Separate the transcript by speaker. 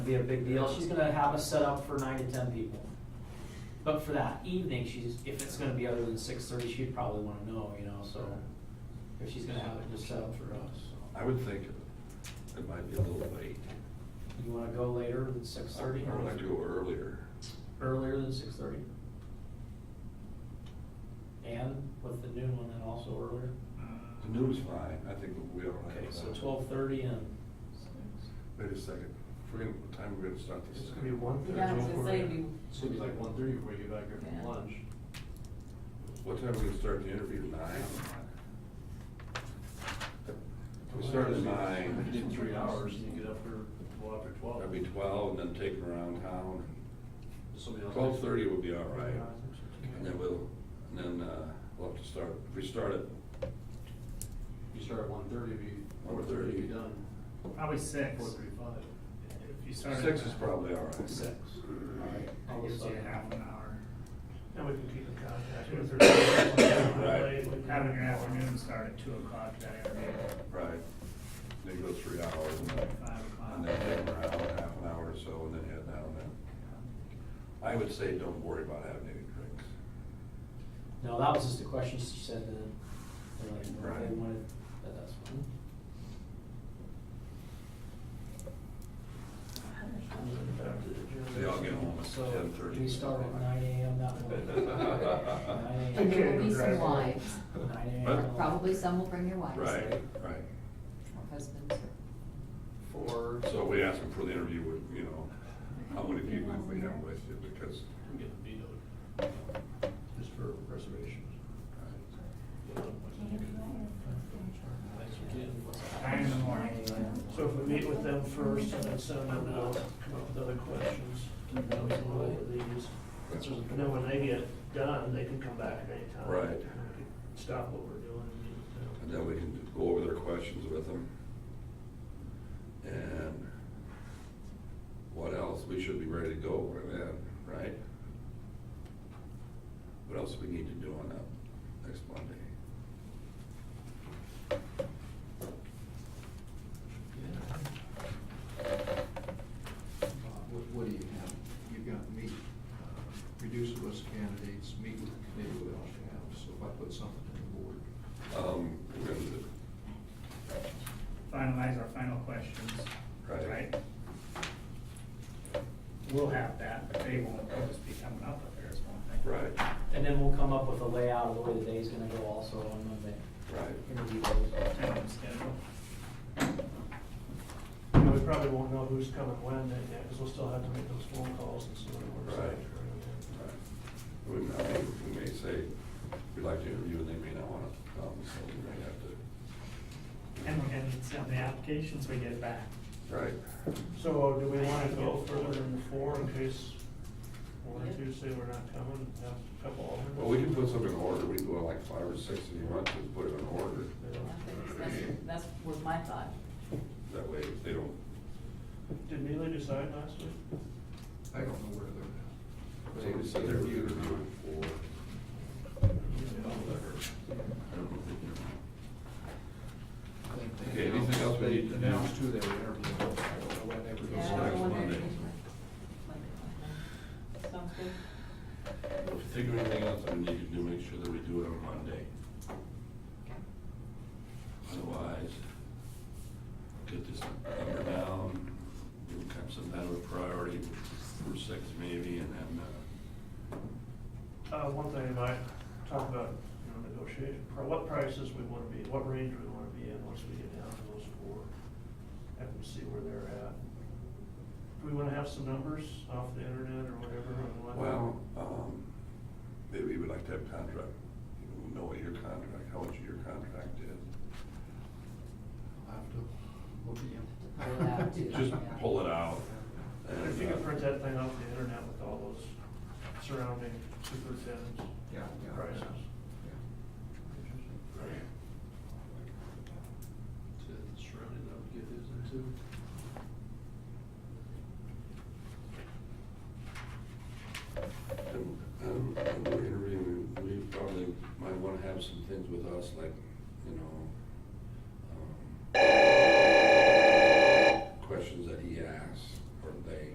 Speaker 1: be a big deal. She's gonna have us set up for nine to ten people. But for that evening, she's, if it's gonna be other than six thirty, she'd probably wanna know, you know, so. If she's gonna have it just set up for us, so.
Speaker 2: I would think it might be a little late,
Speaker 1: You wanna go later than six
Speaker 2: or
Speaker 1: thirty?
Speaker 2: I'd like to go earlier.
Speaker 1: Earlier than six thirty? And with the noon one then also earlier?
Speaker 2: The noon's fine, I think we all right.
Speaker 1: Okay,
Speaker 2: with
Speaker 1: so
Speaker 2: that.
Speaker 1: twelve thirty and,
Speaker 2: Wait a second, If we're gonna, what time are we gonna start this?
Speaker 3: It's gonna be one thirty.
Speaker 4: Yeah, I was gonna say, we-
Speaker 3: It's gonna be like one thirty before you get back here
Speaker 4: Yeah.
Speaker 3: from lunch.
Speaker 2: What time are we gonna start the interview, nine? We start at nine.
Speaker 3: You did three hours and you get up here, well, after twelve.
Speaker 2: That'd be twelve, and then take them around town.
Speaker 3: Somebody else-
Speaker 2: Twelve thirty would be all right, and then we'll, and then, uh, we'll have to start, if we start at
Speaker 3: You start at one thirty, be, four
Speaker 2: 1:30.
Speaker 3: thirty, be done.
Speaker 5: Probably six.
Speaker 3: Four thirty-five.
Speaker 5: If you started.
Speaker 2: six
Speaker 5: at
Speaker 2: is probably all right.
Speaker 5: Six.
Speaker 1: alright,
Speaker 5: That
Speaker 1: I'll
Speaker 5: gives you
Speaker 1: start.
Speaker 5: half an hour.
Speaker 6: And we can keep in contact with her.
Speaker 5: Having your afternoon start at two o'clock that afternoon,
Speaker 2: Right, they go three hours, and then
Speaker 5: five
Speaker 2: And then
Speaker 5: o'clock.
Speaker 2: take them around half an hour or so and then head down then. I would say don't worry about having any drinks.
Speaker 1: no, that was just a question she said that, they're like, no, they
Speaker 2: Right.
Speaker 1: wanted, that that's fine.
Speaker 2: They all get home
Speaker 1: So,
Speaker 2: at ten thirty.
Speaker 1: we start at nine AM that morning.
Speaker 4: And there will be some wives,
Speaker 1: Nine
Speaker 2: Huh?
Speaker 1: AM.
Speaker 4: probably some will bring their wives.
Speaker 2: Right, right.
Speaker 4: Or husbands, or,
Speaker 1: For,
Speaker 2: So we ask them for the interview, with, you know, how many people we have with you because.
Speaker 3: I'm getting vetoed. Just for reservations. Thanks for getting.
Speaker 5: Nine in the morning.
Speaker 6: So if we meet with them first and then send them out, come up with other questions, and then we can go over these. And then when they get done, they can come back at any time.
Speaker 2: Right.
Speaker 6: And we can Stop what we're doing and meet with
Speaker 2: And
Speaker 6: them.
Speaker 2: then we can go over their questions with them. And what else? We should be ready to go by then, right? What else we need to do on that next Monday?
Speaker 7: Uh, What, what do you have? You've got meet, uh, reduce the list of candidates, meet with the committee what else you have. So if I put something in the board,
Speaker 2: Um, we're gonna do-
Speaker 5: Finalize our final questions.
Speaker 2: Right.
Speaker 5: We'll have that, but they won't, they'll just be coming up with theirs, won't they?
Speaker 2: Right,
Speaker 1: and then we'll come up with a layout of the way the day's gonna go also on Monday.
Speaker 2: right.
Speaker 1: Interview those.
Speaker 5: Kind of schedule.
Speaker 6: And we probably won't know who's coming when then, yeah, because we'll still have to make those phone calls and see what works. out.
Speaker 2: Right. right. We may, we may say, we'd like to interview and they may not wanna come, so we may have to,
Speaker 5: And we're gonna need some of the applications we get back.
Speaker 2: right.
Speaker 6: So uh, do we want to go further than four in case one or two say we're not coming, have a couple of them?
Speaker 2: Well, we can put something in order. We can go like five or six if you want to, put it in order.
Speaker 4: that's, that's was my thought.
Speaker 2: That way if they don't,
Speaker 6: Did Neely decide last week?
Speaker 7: I don't know where they're at.
Speaker 2: they just said they're interviewing for.
Speaker 7: I think they
Speaker 2: Okay, anything
Speaker 7: announced-
Speaker 2: else we
Speaker 7: they
Speaker 2: need to do?
Speaker 7: Announced who they were interviewing. I don't know when they were
Speaker 2: Yeah,
Speaker 4: Yeah, I
Speaker 2: next
Speaker 4: don't wonder if
Speaker 2: Monday.
Speaker 4: it is Monday. Sounds good.
Speaker 2: If you think of anything else that we need to do, make sure that we do it on Monday. Otherwise, get this number down, we'll have some kind of a priority for six maybe, and then, uh,
Speaker 6: Uh, one thing I might talk about, you know, negotiation, pri- what prices we want to be, what range we want to be in once we get down to those four. Have them see where they're at. Do we want to have some numbers off the internet or whatever? and what-
Speaker 2: well, um, maybe we'd like to have contract, you know, know what your contract, how much your contract is.
Speaker 7: I'll have to look
Speaker 4: Pull it out,
Speaker 7: at
Speaker 4: too.
Speaker 7: you.
Speaker 2: Just pull it out. and,
Speaker 6: If you
Speaker 2: uh,
Speaker 6: could print that thing off the internet with all those surrounding superintendents.
Speaker 7: Yeah, yeah.
Speaker 6: Prices.
Speaker 7: Yeah.
Speaker 3: Surrounding, I would get his in too.
Speaker 2: And, and and we're interviewing, we probably might wanna have some things with us, like, you know, um,